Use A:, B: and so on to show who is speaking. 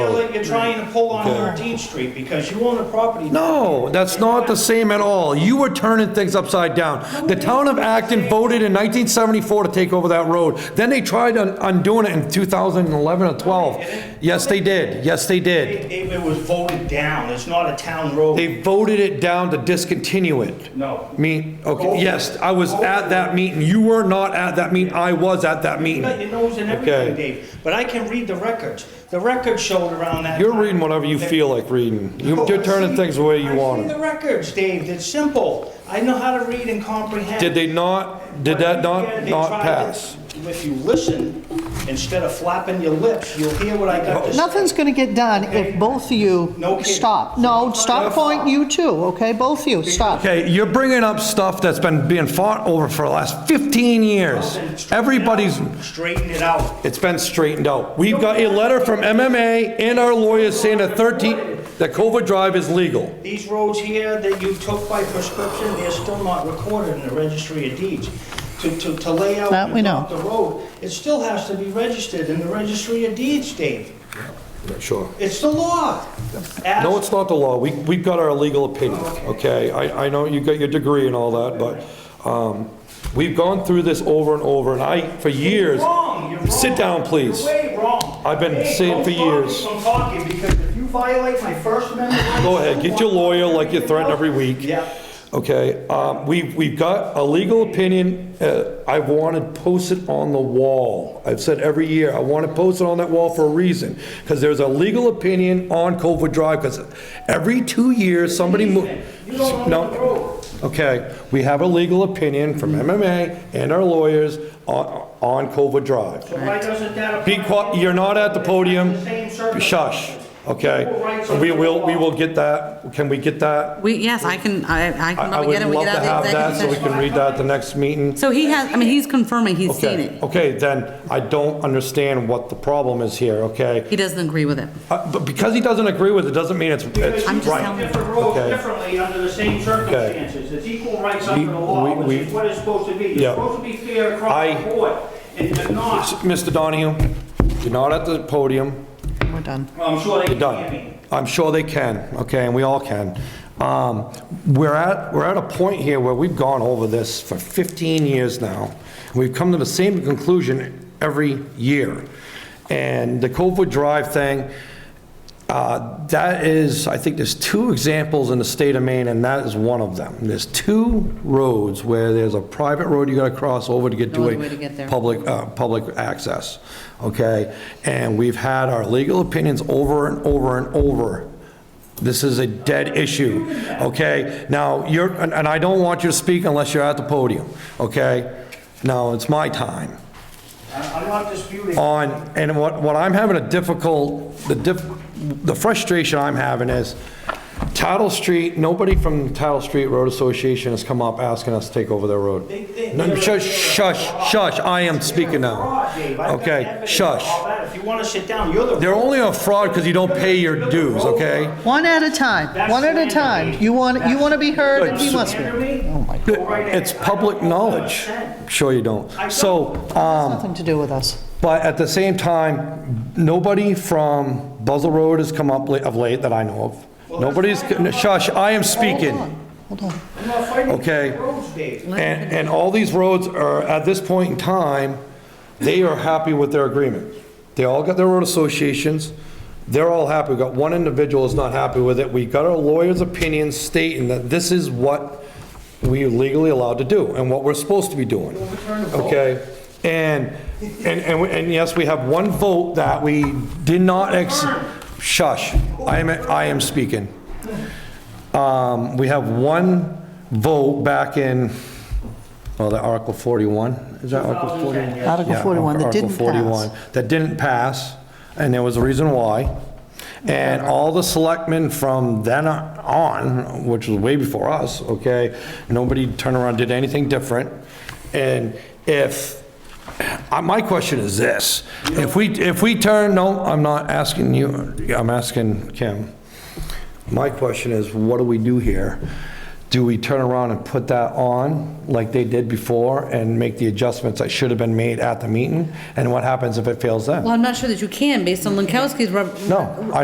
A: road.
B: like you're trying to pull on Thirteenth Street because you own a property.
A: No, that's not the same at all. You were turning things upside down. The town of Acton voted in 1974 to take over that road. Then they tried un- undoing it in 2011 or 12. Yes, they did. Yes, they did.
B: It, it was voted down. It's not a town road.
A: They voted it down to discontinue it.
B: No.
A: Me, okay, yes, I was at that meeting. You were not at that meeting. I was at that
B: You got
A: meeting.
B: your nose in
A: Okay.
B: everything, Dave, but I can read the records. The records showed around that.
A: You're
B: time
A: reading whatever you
B: that-
A: feel like reading. You-
B: No,
A: You're
B: I
A: turning
B: see-
A: things the way you want
B: I see the
A: them.
B: records, Dave. It's simple. I know how to read and comprehend.
A: Did they not, did that
B: Yeah,
A: not,
B: they
A: not
B: tried
A: pass?
B: it. If you listen, instead of flapping your lips, you'll hear what I got to say.
C: Nothing's going to get done if both of
B: No
C: you
B: kidding.
C: stop. No, stop pointing, you too, okay? Both of you, stop.
A: Okay, you're bringing up stuff that's been being fought over for the last 15 years.
B: Straighten it out.
A: Everybody's,
B: Straighten it out.
A: it's been straightened out. We've got a letter from MMA and our lawyers saying that 13, that Cova Drive is legal.
B: These roads here that you took by prescription, they're still not recorded in the registry of deeds. To, to, to lay out.
C: That we
B: and
C: know.
B: block The road, it still has to be registered in the registry of deeds, Dave.
A: Sure.
B: It's the law.
A: No, it's not the law. We, we've got our legal opinion, okay? I, I know you got your degree and all that, but, um, we've gone through this over and over, and I, for years.
B: You're wrong, you're wrong.
A: Sit down, please.
B: You're way wrong.
A: I've been
B: Hey,
A: saying
B: don't stop me
A: for years.
B: from talking, because if you violate my First Amendment rights-
A: Go ahead, get your lawyer like you threaten every week.
B: Yeah.
A: Okay, um, we, we've got a legal opinion, uh, I wanted posted on the wall. I've said every year, I want it posted on that wall for a reason, because there's a legal opinion on Culver Drive, because every two years, somebody mo-
B: You don't own
A: No.
B: the road.
A: Okay, we have a legal opinion from MMA and our lawyers on, on Culver Drive.
B: So why doesn't that apply?
A: Be quiet, you're not at the podium.
B: It's the same circumstances.
A: Shush, okay?
B: Equal rights under
A: We will,
B: the
A: we
B: law.
A: will get that, can we get that?
D: We, yes, I can, I, I
A: I
D: can
A: I
D: probably
A: would
D: get it, we
A: love
D: get
A: to
D: out of
A: have
D: the
A: that, so
D: executive
A: we
D: session.
A: can read that at the next meeting.
D: So he has, I mean, he's confirming he's seen
A: Okay,
D: it.
A: okay, then I don't understand what the problem is here, okay?
D: He doesn't agree with it.
A: Uh, But because he doesn't agree with it, doesn't mean it's, it's
D: I'm just
A: right.
D: telling you.
B: Different roads
A: Okay.
B: differently under the same circumstances. It's equal rights under the law,
A: we-
B: which
A: we-
B: is what it's supposed to be. You're
A: Yeah.
B: supposed to be fair
A: I-
B: across the board, and you're not.
A: Mr. Donahue, you're not at the podium,
C: We're done.
B: Well, I'm sure they
A: you're
B: can hear me.
A: done. I'm sure they can, okay, and we all can. Um, We're at, we're at a point here where we've gone over this for 15 years now. We've come to the same conclusion every year. And the Copwood Drive thing, Uh, That is, I think there's two examples in the state of Maine, and that is one of them. There's two roads where there's a private road you gotta cross over to get to
D: Only
A: a
D: way to get there.
A: public, uh, public access, okay? And we've had our legal opinions over and over and over. This is a dead issue, okay? Now, you're, and and I don't want you to speak unless you're at the podium, okay? Now, it's my time
B: I- I'm not disputing.
A: on, and what, what I'm having a difficult, the diff, the frustration I'm having is Tattle Street, nobody from the Tattle Street Road Association has come up asking us to take over their road.
B: they-
A: No, Shush, shush, shush, I am speaking now.
B: Fraud, Dave. I've got
A: Okay,
B: evidence of
A: shush.
B: all that. If you want to sit down, you're the.
A: They're only a fraud because you don't pay your dues, okay?
C: One at a time, one at a time. You want, you want to be heard and he wants to. be
B: Hear
C: heard.
B: me? Go right ahead.
A: Oh It's public knowledge. Sure you don't. So,
C: Nothing to do with us.
A: But at the same time, nobody from Buzzell Road has come up la- of late that I know of. Nobody's, shush, I am speaking.
C: Hold on.
B: I'm not fighting
A: Okay.
B: the roads, Dave.
A: And, and all these roads are, at this point in time, they are happy with their agreement. They all got their road associations, they're all happy. We've got one individual is not happy with it. We got our lawyer's opinion stating that this is what we are legally allowed to do and what we're supposed to be doing. Okay? And, and, and, we- and yes, we have one vote that we did not ex, shush, I am, I am speaking. Um, we have one vote back in, oh, the Article 41, is that Article 41?
C: Article
A: Oh, Yeah,
C: 41 that
A: Article
C: didn't
A: 41,
C: pass.
A: That didn't pass, and there was a reason why. And all the selectmen from then on, which was way before us, okay, nobody turned around, did anything different. And if, uh, my question is this, if we, if we turn, no, I'm not asking you, I'm asking Kim. My question is, what do we do here? Do we turn around and put that on like they did before and make the adjustments that should have been made at the meeting? And what happens if it fails then?
D: Well, I'm not sure that you can, based on Lankowski's.
A: No, I